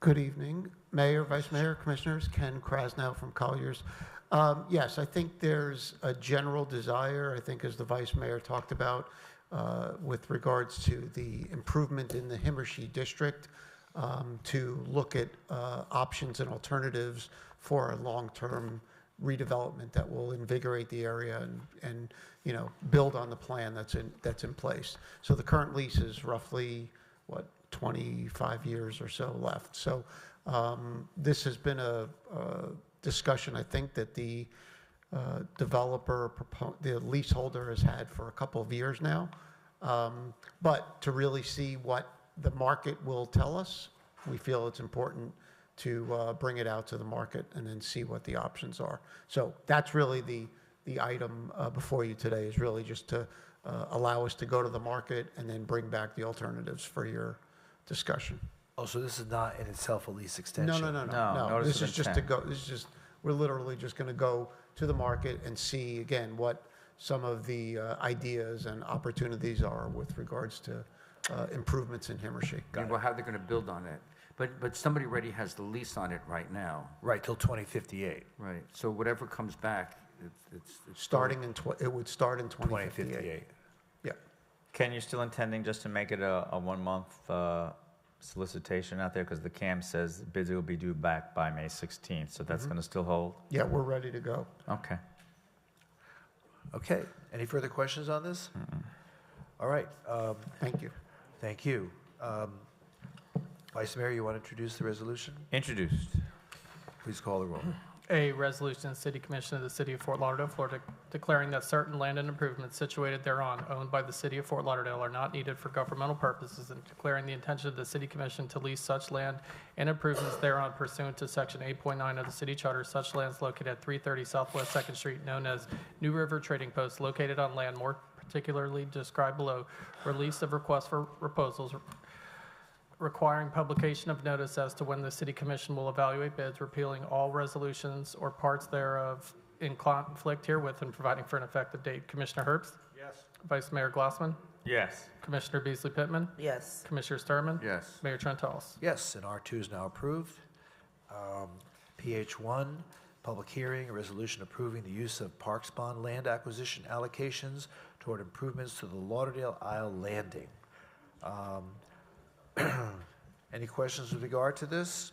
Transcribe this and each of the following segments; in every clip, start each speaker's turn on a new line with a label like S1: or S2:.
S1: Good evening, Mayor, Vice Mayor, Commissioners. Ken Krasnow from Colliers. Um, Yes, I think there's a general desire, I think as the Vice Mayor talked about, uh, with regards to the improvement in the Himmershey District, um, to look at uh, options and alternatives for a long-term redevelopment that will invigorate the area and, and, you know, build on the plan that's in, that's in place. So the current lease is roughly, what, 25 years or so left. So um, this has been a a discussion, I think, that the uh, developer, propo- the leaseholder has had for a couple of years now. Um, But to really see what the market will tell us, we feel it's important to uh, bring it out to the market and then see what the options are. So that's really the, the item uh, before you today, is really just to uh, allow us to go to the market and then bring back the alternatives for your discussion.
S2: Oh, so this is not in itself a lease extension?
S1: No, no, no, no,
S3: No,
S1: no.
S3: notice
S1: This
S3: of
S1: is just to
S3: intent.
S1: go, this is just, we're literally just going to go to the market and see, again, what some of the uh, ideas and opportunities are with regards to uh, improvements in Himmershey.
S3: And well, how they're going to build on it. But, but somebody already has the lease on it right now,
S2: Right, till 2058,
S3: right? So whatever comes back, it's- it's, it's.
S1: Starting in, tw- it would start in 2058.
S2: 2058.
S1: Yeah,
S4: Ken, you're still intending just to make it a, a one-month uh, solicitation out there? Because the CAM says bids will be due back by May 16th, so that's going to still hold?
S1: yeah, we're ready to go.
S4: Okay.
S2: Okay, any further questions on this? All right, um,
S1: Thank you.
S2: thank you. Um, Vice Mayor, you want to introduce the resolution?
S4: Introduced.
S2: Please call the roll.
S5: A resolution, of the City Commission of the City of Fort Lauderdale, Florida, declaring that certain land and improvements situated thereon owned by the City of Fort Lauderdale are not needed for governmental purposes and declaring the intention of the City Commission to lease such land and improvements thereon pursuant to Section 8.9 of the City Charter, such lands located at 330 Southwest Second Street, known as New River Trading Post, located on land more particularly described below, release of request for proposals, requiring publication of notice as to when the city commission will evaluate bids, repealing all resolutions or parts thereof in conflict herewith and providing for an effective date. Commissioner Herbst? Yes. Vice Mayor Glassman?
S4: Yes.
S5: Commissioner Beasley Pittman?
S6: Yes,
S5: Commissioner Sturman?
S3: Yes.
S5: Mayor Trentalis?
S2: Yes, and R2 is now approved. Um, PH1, public hearing, a resolution approving the use of Parks Bond land acquisition allocations toward improvements to the Lauderdale Isle Landing. Um, Any questions with regard to this?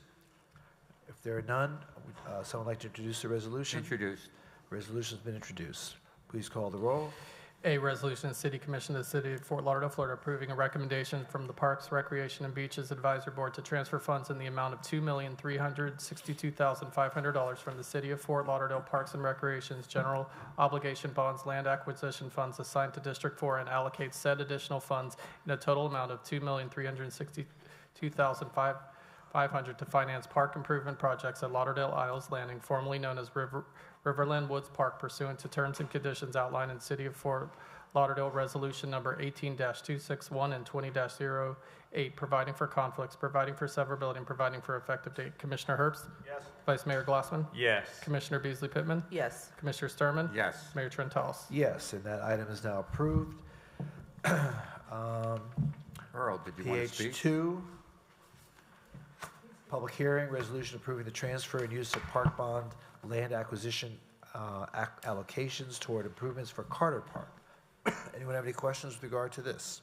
S2: If there are none, would, uh, someone like to introduce the resolution?
S3: Introduced,
S2: Resolution's been introduced. Please call the roll.
S5: A resolution, of the City Commission of the City of Fort Lauderdale, Florida, approving a recommendation from the Parks, Recreation, and Beaches Advisory Board to transfer funds in the amount of $2,362,500 from the City of Fort Lauderdale Parks and Recreation's general obligation bonds land acquisition funds assigned to District 4 and allocate said additional funds in a total amount of $2,362,500 to finance park improvement projects at Lauderdale Isles Landing, formerly known as River Riverland Woods Park pursuant to terms and conditions outlined in City of Fort Lauderdale Resolution Number 18-261 and 20-08, providing for conflicts, providing for severability, and providing for effective date. Commissioner Herbst? Yes. Vice Mayor Glassman?
S4: Yes.
S5: Commissioner Beasley Pittman?
S6: yes,
S5: Commissioner Sturman?
S3: yes.
S5: Mayor Trentalis?
S2: Yes, and that item is now approved.
S3: Earl, did you want to
S2: PH
S3: speak?
S2: two. Public hearing, resolution approving the transfer and use of park bond land acquisition uh, ac- allocations toward improvements for Carter Park. Anyone have any questions with regard to this?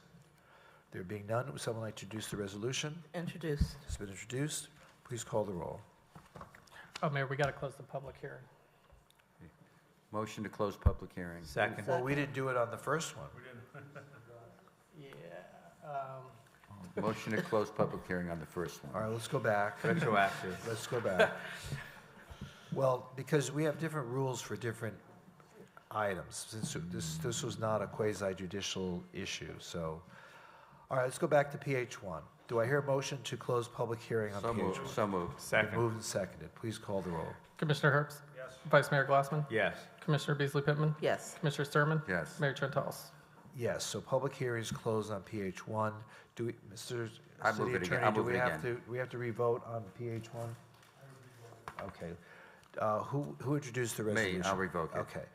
S2: There being none, would someone like to introduce the resolution?
S6: introduced,
S2: It's been introduced. Please call the roll.
S5: Oh, Mayor, we got to close the public hearing.
S3: Motion to close public hearing.
S4: Second.
S2: Well, we didn't do it on the first one.
S5: Yeah.
S3: Motion to close public hearing on the first
S2: All
S3: one.
S2: right, let's go back.
S4: Retroactive.
S2: Let's go back. Well, because we have different rules for different items, since this, this was not a quasi judicial issue, so. All right, let's go back to PH one. Do I hear a motion to close public hearing on
S3: So
S2: PH one?
S3: moved, so moved.
S4: Second.
S2: Moved and seconded. Please call the roll.
S5: Commissioner Herbst? Yes. Vice Mayor Glassman?
S4: Yes.
S5: Commissioner Beasley Pittman?
S6: yes,
S5: Commissioner Sturman?
S3: Yes.
S5: Mayor Trentalis?
S2: Yes, so public hearing is closed on PH one. Do we, Mr.
S3: I move
S2: City
S3: it again.
S2: Attorney,
S3: I
S2: do
S3: move
S2: we
S3: it
S2: have to,
S3: again.
S2: we have to revote on PH one? Okay. Uh, Who, who introduced the
S3: Me,
S2: resolution?
S3: I'll revoke it.
S2: Okay.